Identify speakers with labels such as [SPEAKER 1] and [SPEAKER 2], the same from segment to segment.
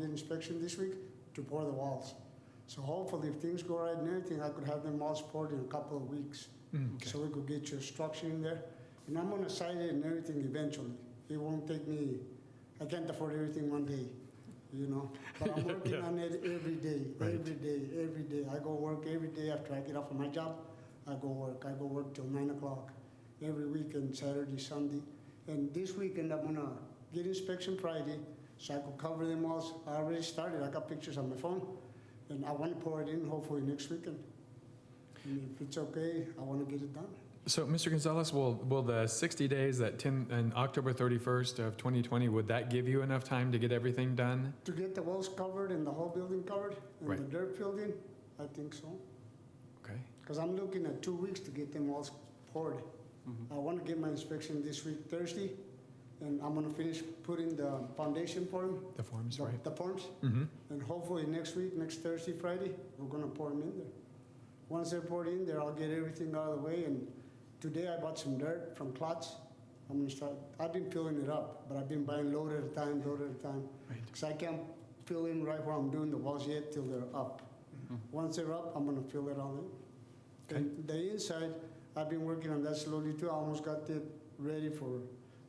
[SPEAKER 1] did inspection this week to pour the walls. So hopefully, if things go right and everything, I could have them all poured in a couple of weeks.
[SPEAKER 2] Mm.
[SPEAKER 1] So we could get your structure in there. And I'm gonna site it and everything eventually. It won't take me, I can't afford everything one day, you know? But I'm working
[SPEAKER 3] Yeah.
[SPEAKER 1] on it every day,
[SPEAKER 3] Right.
[SPEAKER 1] every day, every day. I go work every day after I get off of my job. I go work. I go work till nine o'clock every weekend, Saturday, Sunday. And this weekend, I'm gonna get inspection Friday, so I could cover them all. I already started. I got pictures on my phone, and I want to pour it in hopefully next weekend. And if it's okay, I want to get it done.
[SPEAKER 2] So, Mr. Gonzalez, will, will the 60 days, that 10, and October 31st of 2020, would that give you enough time to get everything done?
[SPEAKER 1] To get the walls covered and the whole building covered and the
[SPEAKER 2] Right.
[SPEAKER 1] dirt filled in, I think so.
[SPEAKER 2] Okay,
[SPEAKER 1] Because I'm looking at two weeks to get them all poured. I want to get my inspection this week, Thursday, and I'm gonna finish putting the foundation for them,
[SPEAKER 2] the forms,
[SPEAKER 1] the
[SPEAKER 2] right?
[SPEAKER 1] the forms,
[SPEAKER 2] Mm-hmm,
[SPEAKER 1] and hopefully next week, next Thursday, Friday, we're gonna pour them in there. Once they're poured in there, I'll get everything out of the way, and today I bought some dirt from Klotz. I'm gonna start, I've been filling it up, but I've been buying load at a time, load at a time.
[SPEAKER 2] right.
[SPEAKER 1] Because I can't fill in right where I'm doing the walls yet till they're up. Once they're up, I'm gonna fill it all in.
[SPEAKER 2] Mm-hmm. Okay.
[SPEAKER 1] And the inside, I've been working on that slowly too, I almost got it ready for,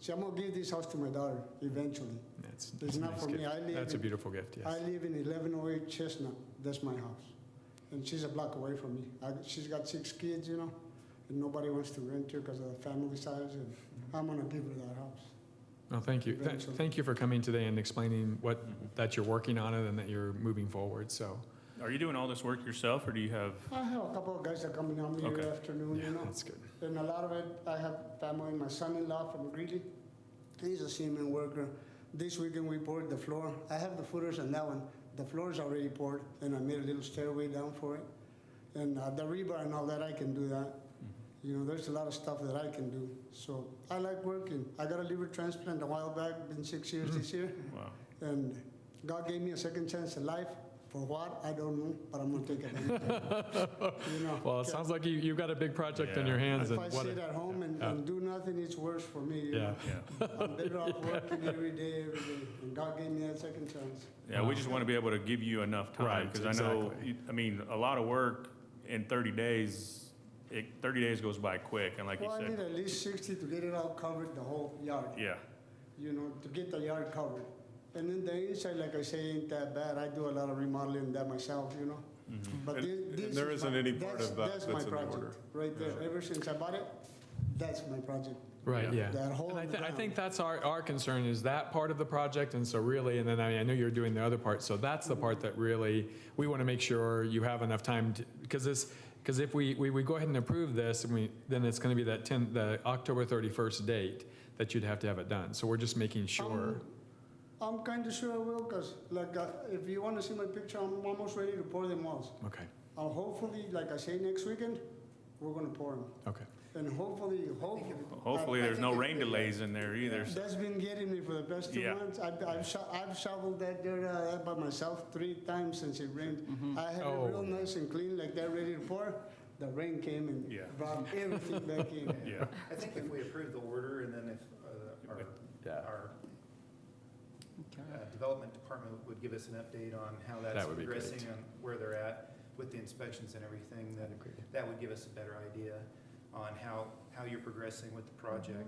[SPEAKER 1] see, I'm gonna give this house to my daughter eventually.
[SPEAKER 2] That's,
[SPEAKER 1] It's
[SPEAKER 2] that's a
[SPEAKER 1] not
[SPEAKER 2] nice
[SPEAKER 1] for me,
[SPEAKER 2] gift.
[SPEAKER 1] I live
[SPEAKER 2] That's a
[SPEAKER 1] in,
[SPEAKER 2] beautiful gift,
[SPEAKER 1] I
[SPEAKER 2] yes.
[SPEAKER 1] live in eleven oh eight Chestnut, that's my house. And she's a block away from me, I, she's got six kids, you know, and nobody wants to rent here because of the family size, and
[SPEAKER 2] Mm-hmm.
[SPEAKER 1] I'm gonna give her that house.
[SPEAKER 2] Well, thank you. Th-
[SPEAKER 1] Eventually.
[SPEAKER 2] Thank you for coming today and explaining what, that you're working on it and that you're moving forward, so.
[SPEAKER 3] Mm-hmm. Are you doing all this work yourself, or do you have?
[SPEAKER 1] I have a couple of guys that come in on me every
[SPEAKER 3] Okay.
[SPEAKER 1] afternoon,
[SPEAKER 2] Yeah,
[SPEAKER 1] you know?
[SPEAKER 2] that's good.
[SPEAKER 1] And a lot of it, I have family, my son-in-law from Greeley, he's a cement worker. This weekend we poured the floor, I have the footers on that one, the floor is already poured, and I made a little stairway down for it. And uh, the rebar and all that, I can do that. You know, there's a lot of stuff that I can do, so I like working. I got a liver transplant a while back, been six years this year,
[SPEAKER 3] Wow.
[SPEAKER 1] and God gave me a second chance in life. For what, I don't know, but I'm gonna take it. You know,
[SPEAKER 2] Well, it sounds like you, you've got a big project on your
[SPEAKER 3] Yeah.
[SPEAKER 2] hands
[SPEAKER 1] if
[SPEAKER 2] and
[SPEAKER 1] I
[SPEAKER 2] what,
[SPEAKER 1] sit
[SPEAKER 2] a-
[SPEAKER 1] at home and,
[SPEAKER 2] Yeah.
[SPEAKER 1] and do nothing, it's worse for me. you
[SPEAKER 2] yeah.
[SPEAKER 1] know.
[SPEAKER 3] Yeah.
[SPEAKER 1] I'm better off working every day, every day. And God gave me that second chance.
[SPEAKER 3] Yeah. We just want to be able to give you enough time
[SPEAKER 2] Right,
[SPEAKER 3] because I know.
[SPEAKER 2] exactly.
[SPEAKER 3] you- I mean, a lot of work in 30 days. It, 30 days goes by quick, and like
[SPEAKER 1] Well, I
[SPEAKER 3] you
[SPEAKER 1] need
[SPEAKER 3] said,
[SPEAKER 1] at least 60 to get it all covered, the whole yard,
[SPEAKER 3] yeah.
[SPEAKER 1] you know, to get the yard covered. And then the inside, like I say, ain't that bad. I do a lot of remodeling that myself, you know. But
[SPEAKER 4] Mm-hmm. And-
[SPEAKER 1] this,
[SPEAKER 4] and
[SPEAKER 1] this
[SPEAKER 4] there
[SPEAKER 1] is
[SPEAKER 4] isn't
[SPEAKER 1] my-
[SPEAKER 4] any part
[SPEAKER 1] that's-
[SPEAKER 4] of that
[SPEAKER 1] my
[SPEAKER 4] that's in the
[SPEAKER 1] project,
[SPEAKER 4] order.
[SPEAKER 1] Right there. Ever since I bought it, that's my project.
[SPEAKER 2] Right, yeah.
[SPEAKER 3] Yeah.
[SPEAKER 1] That hole
[SPEAKER 2] And I,
[SPEAKER 1] in the
[SPEAKER 2] thi- I
[SPEAKER 1] ground.
[SPEAKER 2] think that's our, our concern is that part of the project. And so really, and then I, mean, I know you're doing the other part. So that's the part that really, we want to make sure you have enough time to, because this, because if we, we, we go ahead and approve this, and we, then it's going to be that 10, the October 31st date that you'd have to have it done. So we're just making sure.
[SPEAKER 1] I'm kind of sure I will, because like, uh, if you want to see my picture, I'm almost ready to pour them walls.
[SPEAKER 2] Okay,
[SPEAKER 1] Uh, hopefully, like I say, next weekend, we're gonna pour them.
[SPEAKER 2] okay.
[SPEAKER 1] And hopefully, hopefully.
[SPEAKER 2] uh,
[SPEAKER 3] Hopefully, there's no rain delays in there either. so-
[SPEAKER 1] That's been getting me for the past two
[SPEAKER 3] Yeah.
[SPEAKER 1] months. I've, I've sho- I've shoveled that dirt out by myself three times since it rained. I had it
[SPEAKER 2] Oh.
[SPEAKER 1] real nice and clean like that, ready to pour. The rain came and
[SPEAKER 3] Yeah.
[SPEAKER 1] brought everything back in.
[SPEAKER 3] Yeah.
[SPEAKER 5] I think if we approve the order and then if uh,
[SPEAKER 2] Yeah.
[SPEAKER 5] our, our uh, development department would give us an update on how that's
[SPEAKER 2] That would be
[SPEAKER 5] progressing
[SPEAKER 2] great.
[SPEAKER 5] and where they're at with the inspections and everything, that, that would give us a better idea on how, how you're progressing with the project.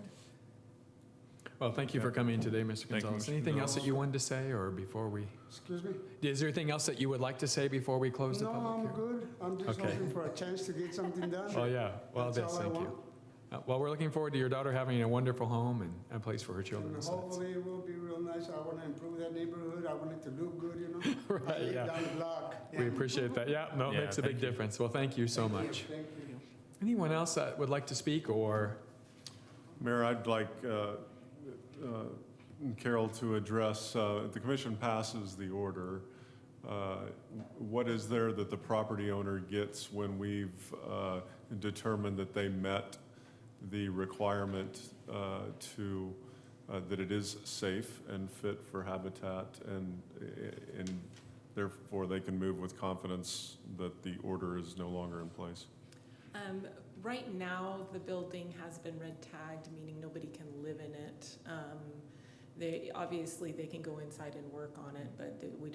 [SPEAKER 2] Well, thank you for coming today, Mr.
[SPEAKER 3] Thank you,
[SPEAKER 2] Gonzalez.
[SPEAKER 3] Mr.
[SPEAKER 2] Anything else
[SPEAKER 3] Gonzalez.
[SPEAKER 2] that you wanted to say or before we,
[SPEAKER 1] Excuse me?
[SPEAKER 2] is there anything else that you would like to say before we close the
[SPEAKER 1] No,
[SPEAKER 2] public hearing?
[SPEAKER 1] I'm good. I'm just
[SPEAKER 2] Okay.
[SPEAKER 1] hoping for a chance to get something done.
[SPEAKER 2] Oh, yeah. Well,
[SPEAKER 1] That's
[SPEAKER 2] that's,
[SPEAKER 1] all I
[SPEAKER 2] thank
[SPEAKER 1] want.
[SPEAKER 2] you. Uh, Well, we're looking forward to your daughter having a wonderful home and a place for her children.
[SPEAKER 1] And
[SPEAKER 2] so that's-
[SPEAKER 1] hopefully it will be real nice. I want to improve that neighborhood. I want it to look good, you know? I
[SPEAKER 2] Right,
[SPEAKER 1] live
[SPEAKER 2] yeah.
[SPEAKER 1] Down the block.
[SPEAKER 2] We appreciate that. Yeah, no, it
[SPEAKER 3] Yeah,
[SPEAKER 2] makes a big
[SPEAKER 3] thank you.
[SPEAKER 2] difference. Well, thank you so
[SPEAKER 1] Thank you,
[SPEAKER 2] much.
[SPEAKER 1] Thank you.
[SPEAKER 2] Anyone else that would like to speak or,
[SPEAKER 4] Mayor, I'd like uh, uh, Carol to address, uh, if the commission passes the order, uh, what is there that the property owner gets when we've uh, determined that they met the requirement uh, to, uh, that it is safe and fit for habitat and, and therefore they can move with confidence that the order is no longer in place?
[SPEAKER 6] Um, right now, the building has been red tagged, meaning nobody can live in it. Um, they, obviously, they can go inside and work on it, but we don't